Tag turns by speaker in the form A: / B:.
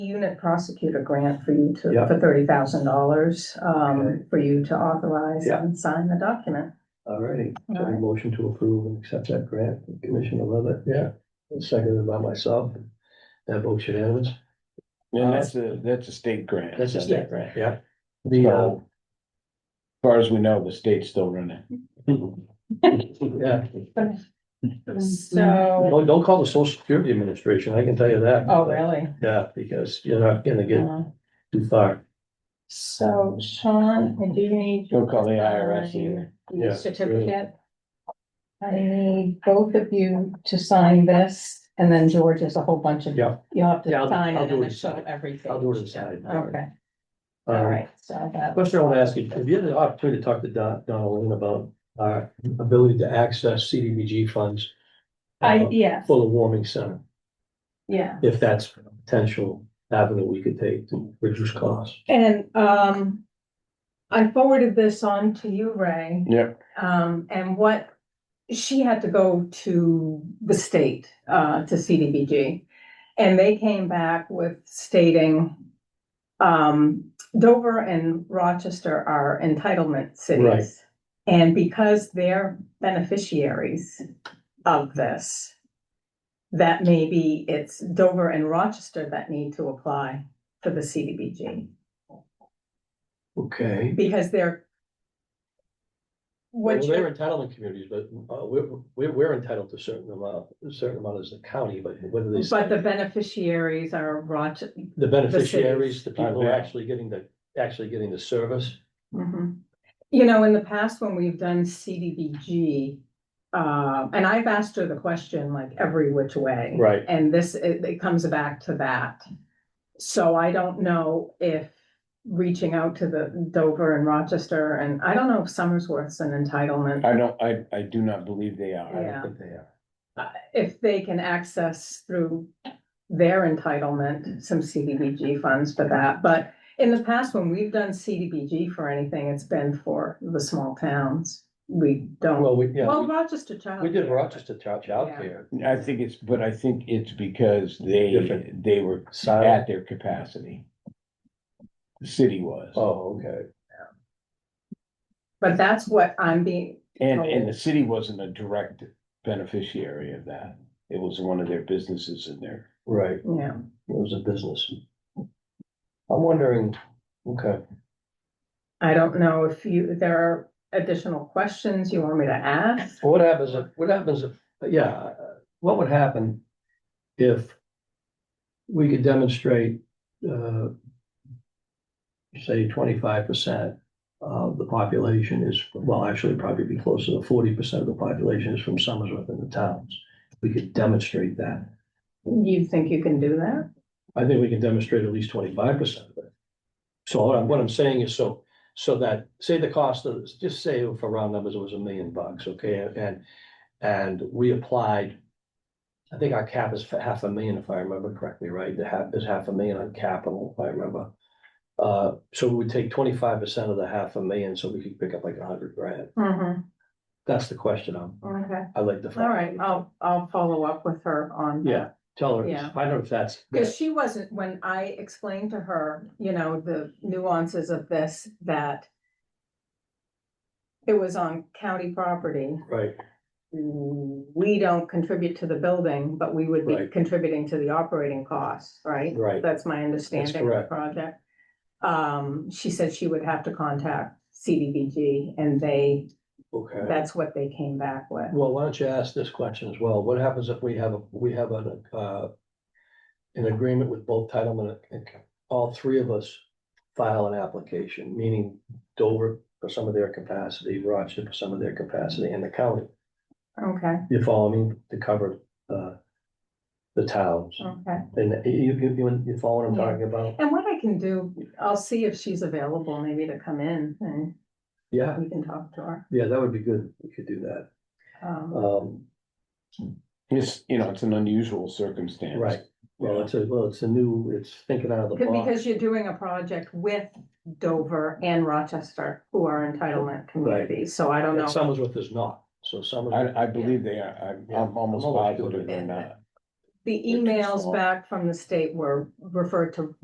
A: unit prosecutor grant for you to,
B: Yeah.
A: for thirty thousand dollars,
B: Okay.
A: um, for you to authorize
B: Yeah.
A: and sign the document.
B: All righty, so
A: All
B: a
A: right.
B: motion to approve and accept that grant, from Commissioner Levitt, yeah, and seconded by myself. That vote unanimous,
C: And that's a, that's a state grant.
B: Um, that's a state grant, yeah. The, uh,
C: So, As far as we know, the state's still running.
B: yeah,
A: So,
B: don't, don't call the social security administration, I can tell you that.
A: oh, really?
B: Yeah, because you're not gonna get
A: Uh,
B: too far,
A: So Sean, I do need.
C: Don't call the IRS
A: sign
C: either.
A: the
B: Yeah,
A: Certificate. I need both of you to sign this and then George has a whole bunch of.
B: Yeah.
A: You'll have to
B: Yeah, I'll-
A: sign
B: I'll
A: it
B: do
A: and
B: it
A: then show
B: inside.
A: everything.
B: I'll do it inside.
A: Okay, all
B: Um,
A: right, so that.
B: Question I want to ask you, have you had the opportunity to talk to Don, Donaldin about our ability to access CDBG funds? uh,
A: I, yeah,
B: For the warming center,
A: yeah.
B: if that's a potential avenue we could take to reduce costs?
A: And um, I forwarded this on to you, Ray.
C: Yeah.
A: Um, and what, she had to go to the state, uh, to CDBG. And they came back with stating, um, Dover and Rochester are entitlement
B: Right.
A: cities. And because they're beneficiaries of this, that maybe it's Dover and Rochester that need to apply for the CDBG
B: Okay.
A: because they're.
B: Well,
A: What
B: they're
A: you're,
B: entitlement communities, but uh, we're, we're, we're entitled to certain amount, a certain amount as the county, but whether they.
A: but the beneficiaries are Rochester.
B: The beneficiaries, the
C: I
B: people who are
C: bet.
B: actually getting the, actually getting the service.
A: You know, in the past, when we've done CDBG, uh, and I've asked her the question like every which way.
B: Right.
A: And this, it, it comes back to that. So I don't know if reaching out to the Dover and Rochester, and I don't know if Somersworth's an entitlement.
C: I don't, I, I do not believe they are. I
A: Yeah.
C: don't think they are.
A: if they can access through their entitlement, some CDBG funds for that, but in the past, when we've done CDBG for anything, it's been for the small towns. We don't,
B: Well, we, yeah,
A: well,
B: we-
A: Rochester child.
B: we did
A: care,
B: Rochester Child Childcare.
C: I think it's, but I think it's because they,
B: Different.
C: they were
B: Silent.
C: at their capacity. The city was.
B: Oh, okay.
A: But that's what I'm being,
C: And, and the city wasn't a direct beneficiary of that. It was one of their businesses in there.
B: Right.
A: you know.
B: It was a business. I'm wondering, okay,
A: I don't know if you, there are additional questions you want me to ask?
B: what happens if, what happens if, yeah, uh, what would happen if we could demonstrate, uh, say twenty-five percent of the population is, well, actually probably be closer to forty percent of the population is from Somersworth and the towns. We could demonstrate that.
A: You think you can do that?
B: I think we can demonstrate at least twenty-five percent of it. So uh, what I'm, what I'm saying is so, so that, say the cost of, just say for round numbers, it was a million bucks, okay, and, and we applied. I think our cap is for half a million, if I remember correctly, right, the half is half a million on capital, if I remember. Uh, so we would take twenty-five percent of the half a million, so we could pick up like a hundred grand,
A: Mm-hmm,
B: that's the question I'm,
A: okay,
B: I like to.
A: all right, I'll, I'll follow up with her on. that.
B: Yeah, tell her,
A: Yeah.
B: I don't know if that's.
A: Because she wasn't, when I explained to her, you know, the nuances of this, that it was on county property.
B: Right,
A: We don't contribute to the building, but we would be
B: Right.
A: contributing to the operating costs, right?
B: right,
A: That's my understanding of the
B: correct.
A: project. Um, she said she would have to contact CDBG and they,
B: okay.
A: that's what they came back with.
B: Well, why don't you ask this question as well? What happens if we have, a we have an, uh, an agreement with both Titleman, and all three of us file an application, meaning Dover for some of their capacity, Rochester for some of their capacity, and the county.
A: Okay,
B: You follow me to cover, uh, the towns.
A: okay.
B: And you, you, you- you follow what I'm
A: Yeah.
B: talking about?
A: And what I can do, I'll see if she's available maybe to come in and
B: Yeah,
A: we can talk to her.
B: yeah, that would be good. We could do that.
C: Uh,
A: Um,
B: Um,
C: It's, you know, it's an unusual circumstance.
B: right. Well, it's a, well, it's a new, it's thinking out of the
A: c-
B: box.
A: Because you're doing a project with Dover and Rochester, who are entitlement communities, so I don't
B: And
A: know.
B: Somersworth is not, so Somersworth.
C: I, I believe they are. I'm,
B: Yeah.
C: I'm almost
B: I'm almost
C: positive
B: sure
C: they're not.
A: the
C: too
A: emails
C: small.
A: back from the state were referred to